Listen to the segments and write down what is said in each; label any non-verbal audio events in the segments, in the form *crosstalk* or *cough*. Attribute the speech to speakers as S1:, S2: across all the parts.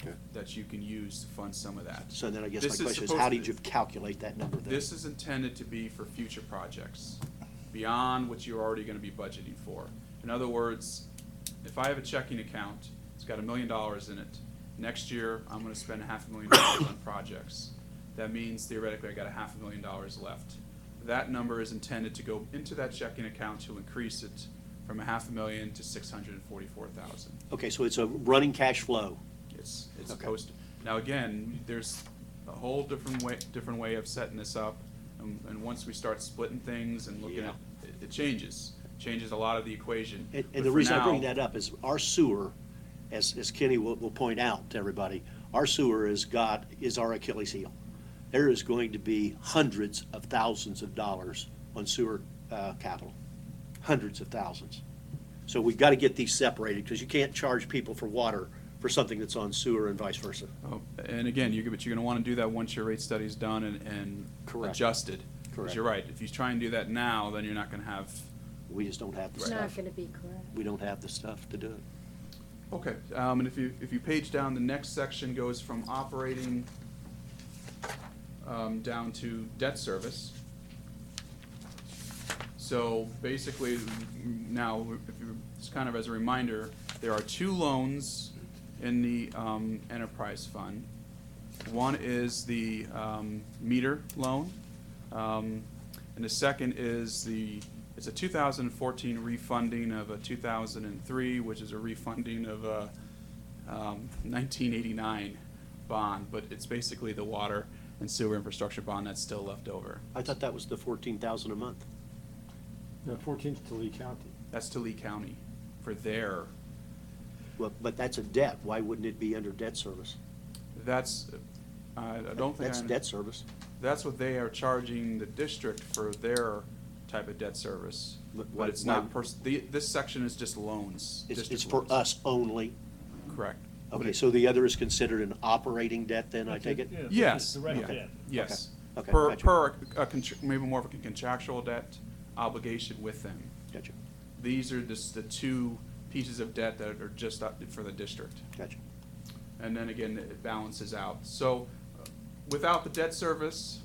S1: Okay.
S2: that you can use to fund some of that.
S3: So then I guess
S2: This
S3: my
S2: is
S3: question is,
S2: supposed
S3: how
S2: to-
S3: did you calculate that number then?
S2: This is intended to be for future projects, beyond what you're already gonna be budgeting for. In other words, if I have a checking account, it's got a million dollars in it, next year, I'm gonna spend half a million dollars on projects. That means theoretically, I got a half a million dollars left. That number is intended to go into that checking account to increase it from a half a million to six hundred and forty-four thousand.
S3: Okay, so it's a running cash flow.
S2: It's, it's
S3: Okay.
S2: supposed to. Now, again, there's a whole different way, different way of setting this up. And, and once we start splitting things and looking at, it, it changes, changes a lot of the equation.
S3: And,
S2: But
S3: and the
S2: for
S3: reason I bring
S2: now-
S3: that up is our sewer, as, as Kenny will, will point out to everybody, our sewer is God, is our Achilles heel. There is going to be hundreds of thousands of dollars on sewer, uh, capital, hundreds of thousands. So we've got to get these separated because you can't charge people for water for something that's on sewer and vice versa.
S2: Oh, And again, you're, but you're gonna wanna do that once your rate study's done and, and
S3: Correct.
S2: adjusted. 'Cause
S3: Correct.
S2: you're right, if you try and do that now, then you're not gonna have,
S3: We just don't have the
S4: It's not
S3: stuff.
S4: gonna be correct.
S3: We don't have the stuff to do it.
S2: okay. Um, and if you, if you page down, the next section goes from operating, um, down to debt service. So basically, mm, now, if you, just kind of as a reminder, there are two loans in the um, enterprise fund. One is the um, meter loan, um, and the second is the, it's a 2014 refunding of a 2003, which is a refunding of a um, 1989 bond, but it's basically the water and sewer infrastructure bond that's still left over.
S3: I thought that was the fourteen thousand a month.
S5: No, fourteenth to Lee County.
S2: That's to Lee County for their,
S3: Well, but that's a debt. Why wouldn't it be under debt service?
S2: that's, I I don't think.
S3: That's
S2: I-
S3: debt service.
S2: That's what they are charging the district for their type of debt service.
S3: But why-
S2: But it's
S3: why-
S2: not, pers- the, this section is just loans.
S3: It's,
S2: district
S3: it's for
S2: loans.
S3: us Oh. only.
S2: Correct.
S3: Okay, so the other is considered an operating debt then, I take it?
S5: Yeah, it's
S2: Yes.
S5: direct
S2: yeah,
S5: debt.
S2: Yes.
S3: Okay,
S2: Per,
S3: gotcha.
S2: per, a contr- maybe more of a contractual debt obligation with them.
S3: Gotcha,
S2: These are just the two pieces of debt that are just up for the district.
S3: gotcha.
S2: and then again, it balances out. So uh, without the debt service,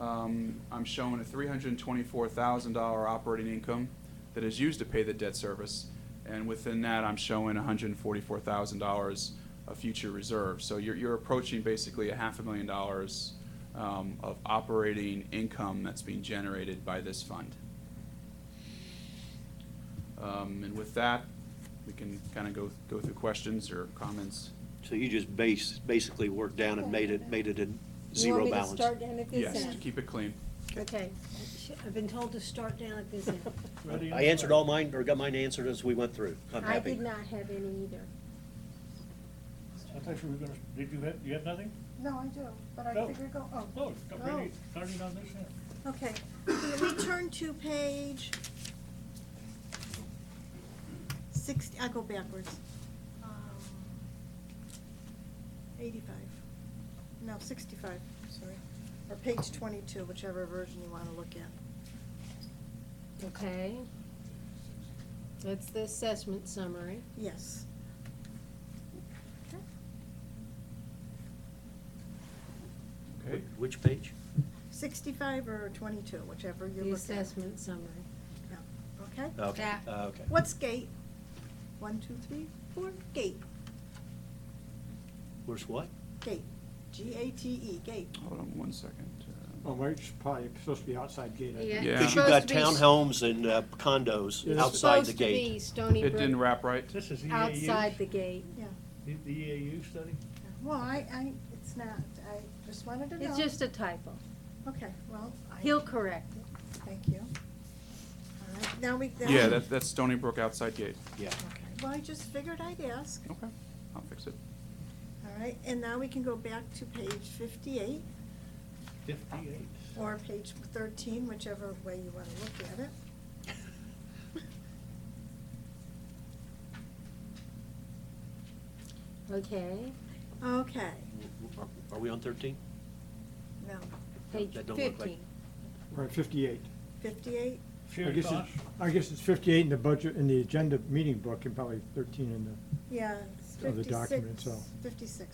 S2: um, I'm showing a $324,000 operating income that is used to pay the debt service. And within that, I'm showing $144,000 of future reserves. So you're, you're approaching basically a half a million dollars um, of operating income that's being generated by this fund. Um, And with that, we can kind of go, go through questions or comments.
S3: So you just base, basically worked down and made it, made it a zero balance.
S6: You want me to start down at this
S2: Yes, to
S6: end?
S2: keep it clean.
S6: Okay, Sh- I've been told to start down at this end.
S5: Ready and
S3: I answered
S5: fire.
S3: all mine, or got mine answered as we went through. *laughs* I'm
S6: I
S3: happy.
S6: did not have any either.
S5: I thought you were gonna, did you have, you have nothing?
S6: No, I do, but
S5: No.
S6: I figure go, oh.
S5: No, start reading, start reading on this end.
S6: Okay, Can we turn to page sixty, I go backwards. Um, Eighty-five, no, sixty-five, sorry, or page twenty-two, whichever version you wanna look at.
S4: Okay. That's the assessment summary.
S6: Yes.
S2: Okay.
S3: Which page?
S6: Sixty-five or twenty-two, whichever you
S4: The
S6: look at.
S4: assessment summary.
S6: Yeah, Okay?
S3: Okay,
S4: Back.
S3: uh, okay.
S6: What's gate? One, two, three, four, gate,
S3: Where's what?
S6: gate, G-A-T-E, E, gate.
S2: Hold on one second. Uh,
S5: Oh, well, it's probably supposed to be outside gate. I think.
S4: Yeah.
S2: Yeah.
S3: Because
S4: It's
S3: you've got
S4: supposed to be-
S3: townhomes and uh, condos
S5: It's
S3: outside the
S4: Supposed to be
S3: gate.
S4: Stony
S2: It didn't
S4: Brook,
S2: wrap right.
S5: This is E EAU.
S4: outside the gate.
S6: Yeah,
S5: The the EAU E study?
S6: well, I, I, it's not, I just wanted to know.
S4: It's just a typo.
S6: Okay, well, I,
S4: He'll correct it.
S6: thank you. All right, now we. then-
S2: Yeah, that, that's Stony Brook outside gate.
S3: Yeah.
S6: Okay, Well, I just figured I'd ask,
S2: Okay, I'll fix it.
S6: all right, and now we can go back to page fifty-eight
S5: Fifty-eight.
S6: or page thirteen, whichever way you wanna look at it.
S3: *laughs*
S4: Okay.
S6: Okay,
S3: Are- Are we on thirteen?
S6: no,
S4: Page
S3: That don't look like-
S4: fifteen.
S5: We're at fifty-eight.
S6: fifty-eight,
S5: I
S7: Sure,
S5: guess
S7: Tosh.
S5: it's, I guess it's fifty-eight in the budget, in the agenda meeting book, and probably thirteen in the
S6: yeah, it's
S5: Of the document
S6: fifty-six,
S5: itself.
S6: fifty-six,